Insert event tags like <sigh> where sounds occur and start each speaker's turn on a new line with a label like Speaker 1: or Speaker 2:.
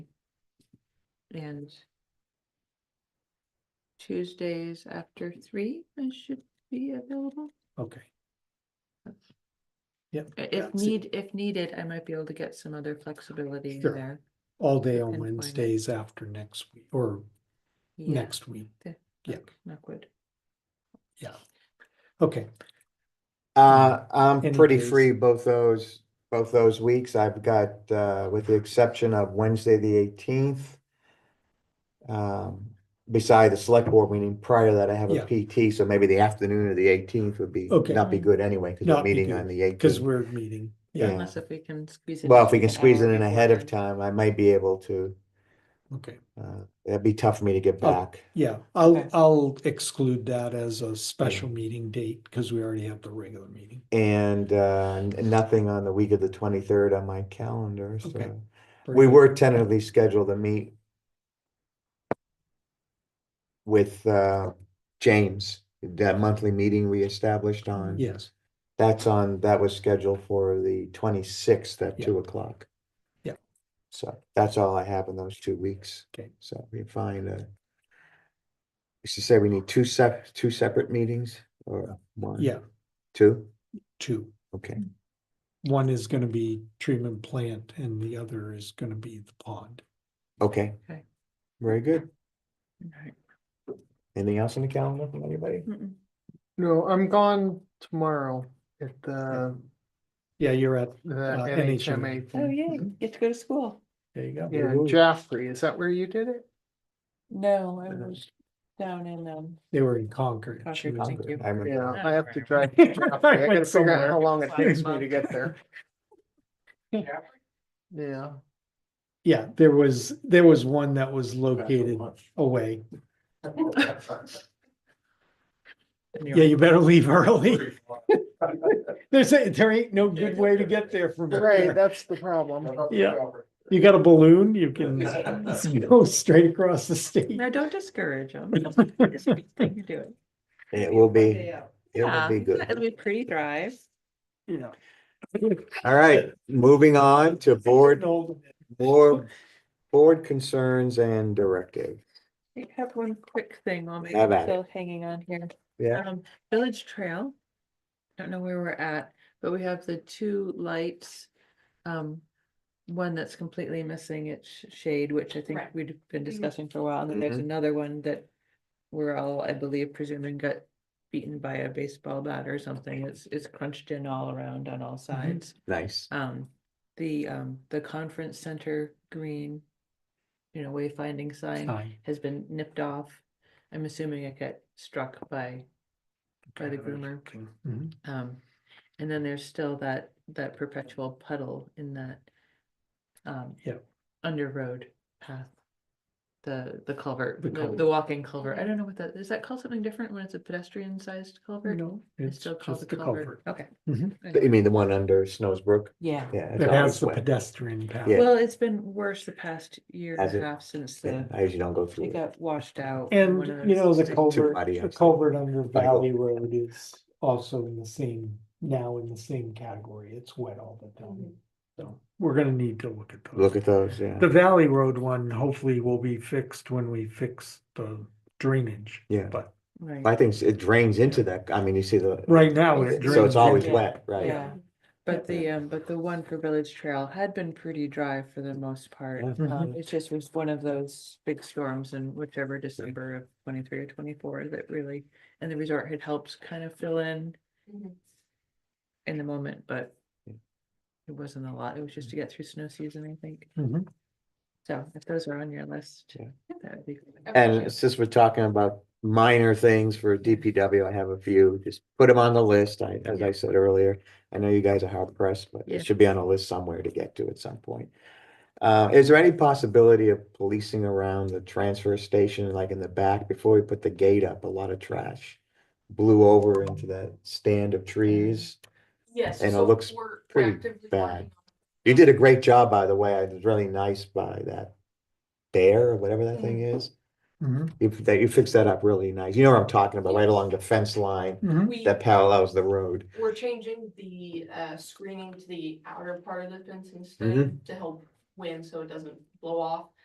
Speaker 1: and Tuesdays after three, I should be available.
Speaker 2: Okay. Yep.
Speaker 1: I- If
Speaker 2: that's it.
Speaker 1: need, if needed, I might be able to get some other flexibility in
Speaker 2: Sure.
Speaker 1: there.
Speaker 2: All day
Speaker 1: and
Speaker 2: on
Speaker 1: find it.
Speaker 2: Wednesdays after next week or
Speaker 1: Yeah,
Speaker 2: next week.
Speaker 1: the-
Speaker 2: yeah.
Speaker 1: knock- Knock wood.
Speaker 2: Yeah. Okay,
Speaker 3: Uh, I'm
Speaker 2: Any
Speaker 3: pretty
Speaker 2: Mm-hmm. days.
Speaker 3: free both those, both those weeks. I've got, uh, with the exception of Wednesday, the eighteenth. Um, beside the select board meeting, prior to that, I have
Speaker 2: Yeah.
Speaker 3: a PT, so maybe the afternoon of the eighteenth would be,
Speaker 2: Okay.
Speaker 3: not be good anyway, because we're
Speaker 2: Not be
Speaker 3: meeting
Speaker 2: good,
Speaker 3: on the
Speaker 2: because
Speaker 3: 18th.
Speaker 2: we're meeting. Yeah,
Speaker 3: Yeah.
Speaker 1: Unless if we can squeeze it.
Speaker 3: Well,
Speaker 1: in
Speaker 3: if we
Speaker 1: an
Speaker 3: can squeeze
Speaker 1: hour
Speaker 3: it in ahead of
Speaker 1: beforehand.
Speaker 3: time, I might be able to,
Speaker 2: okay.
Speaker 3: uh, it'd be tough for me to get
Speaker 2: Oh.
Speaker 3: back.
Speaker 2: Yeah, I'll,
Speaker 1: Okay.
Speaker 2: I'll exclude that as a special meeting date because we already have the regular meeting.
Speaker 3: And, uh, n- nothing on the week of the twenty-third on my calendar,
Speaker 2: Okay.
Speaker 3: so. We were tentatively scheduled to meet with uh James, that monthly meeting we established on.
Speaker 2: Yes,
Speaker 3: That's on, that was scheduled for the twenty-sixth at
Speaker 2: Yeah.
Speaker 3: two o'clock.
Speaker 2: Yeah.
Speaker 3: So that's all I have in those two weeks.
Speaker 2: Okay.
Speaker 3: So we find uh used to say we need two sep- two separate meetings or one?
Speaker 2: yeah, Mm.
Speaker 3: Two?
Speaker 2: two.
Speaker 3: Okay.
Speaker 2: One is gonna be treatment plant and the other is gonna be the pond.
Speaker 3: Okay.
Speaker 1: Okay.
Speaker 3: Very good.
Speaker 1: Alright.
Speaker 3: Anything else on the calendar from anybody?
Speaker 1: Mm-mm.
Speaker 4: No, I'm gone tomorrow at the,
Speaker 2: Yeah, you're at,
Speaker 4: the
Speaker 2: Uh, NHMA.
Speaker 4: NHMA.
Speaker 1: Oh,
Speaker 4: thing.
Speaker 1: yeah,
Speaker 3: Mm-hmm.
Speaker 1: you get to go to school.
Speaker 2: there you go.
Speaker 4: Yeah,
Speaker 3: Ooh.
Speaker 4: Jaffrey, is that where you did it?
Speaker 1: No, I
Speaker 4: Uh,
Speaker 1: was down in, um,
Speaker 2: They were in Concord.
Speaker 1: Concord,
Speaker 2: She was
Speaker 1: thank
Speaker 2: in-
Speaker 1: you.
Speaker 3: I remember.
Speaker 4: Yeah,
Speaker 1: Yeah.
Speaker 4: I have
Speaker 2: <laughs>
Speaker 4: to drive. to
Speaker 2: I
Speaker 4: Jaffrey.
Speaker 2: went
Speaker 4: I gotta figure out
Speaker 2: somewhere.
Speaker 4: how long it takes me
Speaker 1: Somewhere.
Speaker 4: to get
Speaker 2: <laughs>
Speaker 4: there. Yeah,
Speaker 2: Yeah, there was, there was one that was <laughs> located away. Yeah, you better leave early. <laughs> There's, a- there ain't no good way to get there from.
Speaker 4: right, that's the problem.
Speaker 2: <laughs> Yeah. You got a balloon, you can go straight across the state.
Speaker 1: No, don't discourage <laughs> them. You do it.
Speaker 3: It will be, it will
Speaker 1: Yeah,
Speaker 3: be
Speaker 1: It'll
Speaker 3: good.
Speaker 1: be pretty drive.
Speaker 2: Yeah.
Speaker 3: All right, moving on to board,
Speaker 2: Old.
Speaker 3: more board concerns and directive.
Speaker 1: I have one quick thing while maybe
Speaker 3: Have
Speaker 1: I'm
Speaker 3: at it.
Speaker 1: still hanging on here.
Speaker 3: Yeah.
Speaker 1: Um, Village Trail. Don't know where we're at, but we have the two lights. Um, one that's completely missing its sh- shade, which I think
Speaker 5: Correct.
Speaker 1: we've been discussing for a while, and then
Speaker 3: Mm-hmm.
Speaker 1: there's another one that. We're all, I believe, presuming got beaten by a baseball bat or something. It's, it's crunched in all around on all sides.
Speaker 3: Nice.
Speaker 1: Um, the, um, the conference center green. You know, wayfinding sign
Speaker 2: Hi.
Speaker 1: has been nipped off. I'm assuming it got struck by, by the groomer.
Speaker 2: Mhm.
Speaker 1: Um, and then there's still that, that perpetual puddle in that. Um.
Speaker 2: Yep.
Speaker 1: Under road path. The, the culvert,
Speaker 2: The
Speaker 1: the, the
Speaker 2: culvert.
Speaker 1: walking culvert. I don't know what that, is that called something different when it's a pedestrian sized culvert?
Speaker 2: No,
Speaker 1: It's
Speaker 2: it's
Speaker 1: still called
Speaker 2: just
Speaker 1: the
Speaker 2: the
Speaker 1: culvert.
Speaker 2: culvert.
Speaker 1: Okay.
Speaker 2: Mhm.
Speaker 3: You mean the one under Snowsbrook?
Speaker 1: Yeah.
Speaker 3: Yeah. it's
Speaker 2: That has
Speaker 3: always
Speaker 2: the
Speaker 3: wet.
Speaker 2: pedestrian path.
Speaker 3: Yeah.
Speaker 1: Well, it's been worse the past year
Speaker 3: Has
Speaker 1: and
Speaker 3: it?
Speaker 1: a half since
Speaker 3: Yeah,
Speaker 1: the,
Speaker 3: I usually don't go
Speaker 1: it
Speaker 3: through it.
Speaker 1: got washed out. in
Speaker 2: And
Speaker 1: one of
Speaker 2: you
Speaker 1: those-
Speaker 2: know, the culvert,
Speaker 3: muddy
Speaker 2: the
Speaker 3: outside.
Speaker 2: culvert under
Speaker 3: Cycle.
Speaker 2: Valley Road is also in the same, now in the same category. It's wet all the time. So we're gonna need to look at those.
Speaker 3: Look at those, yeah.
Speaker 2: The Valley Road one hopefully will be fixed when we fix the drainage.
Speaker 3: Yeah.
Speaker 2: But
Speaker 1: Right.
Speaker 3: I think it drains into that, I mean, you see the,
Speaker 2: right now it drains.
Speaker 3: so it's always
Speaker 2: into-
Speaker 3: wet, right?
Speaker 1: Yeah, but the, um, but the one for Village Trail had been pretty dry for the most part.
Speaker 3: Yeah.
Speaker 1: Um, it just was one of those big storms in whichever December of twenty-three or twenty-four that really, and the resort had helped kind of fill in in the moment, but
Speaker 3: Yeah.
Speaker 1: it wasn't a lot. It was just to get through snow season, I think.
Speaker 2: Mhm.
Speaker 1: So if those are on your list,
Speaker 3: Mm-hmm. Yeah.
Speaker 1: that would be. good.
Speaker 3: And since we're talking about minor things for DPW, I have a few, just put them on the list, I, as I said earlier. I know you guys are hard pressed, but
Speaker 1: Yeah.
Speaker 3: it should be on a list somewhere to get to at some point. Uh, is there any possibility of policing around the transfer station, like in the back, before we put the gate up, a lot of trash? Blew over into that stand of trees.
Speaker 5: Yes.
Speaker 3: And it
Speaker 5: so
Speaker 3: looks
Speaker 5: we're
Speaker 3: pretty
Speaker 5: actively
Speaker 3: bad.
Speaker 5: working
Speaker 3: You did a great job, by the way, it was really nice by that bear, or whatever that thing is.
Speaker 2: Mhm.
Speaker 3: You, that you fixed that up really nice, you know what I'm talking about, right along the fence line.
Speaker 5: on-
Speaker 2: Mhm.
Speaker 5: We,
Speaker 3: that parallels the road.
Speaker 5: we're changing the uh screening to the outer part of the fence instead
Speaker 3: Mhm.
Speaker 5: to help wind so it doesn't blow off.